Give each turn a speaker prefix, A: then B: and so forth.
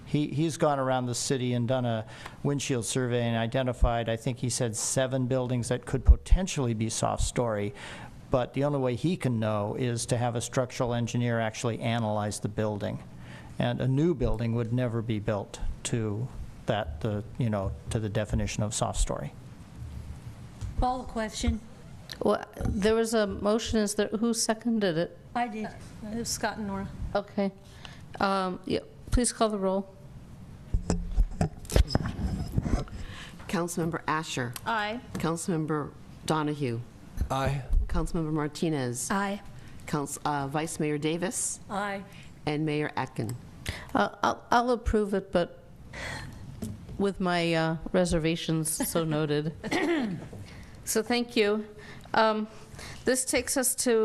A: He, he's gone around the city and done a windshield survey and identified, I think he said, seven buildings that could potentially be soft story. But the only way he can know is to have a structural engineer actually analyze the building. And a new building would never be built to that, the, you know, to the definition of soft story.
B: Call the question.
C: Well, there was a motion, is there, who seconded it?
B: I did.
D: Uh, Scott and Nora.
C: Okay. Um, yeah, Please call the roll.
E: Councilmember Asher.
D: Aye.
E: Councilmember Donahue.
F: Aye.
E: Councilmember Martinez.
B: Aye.
E: Council- uh, Vice Mayor Davis
D: Aye.
E: and Mayor Atkin.
C: Uh, I'll I'll approve it, but with my uh, reservations so noted. So thank you. Um, This takes us to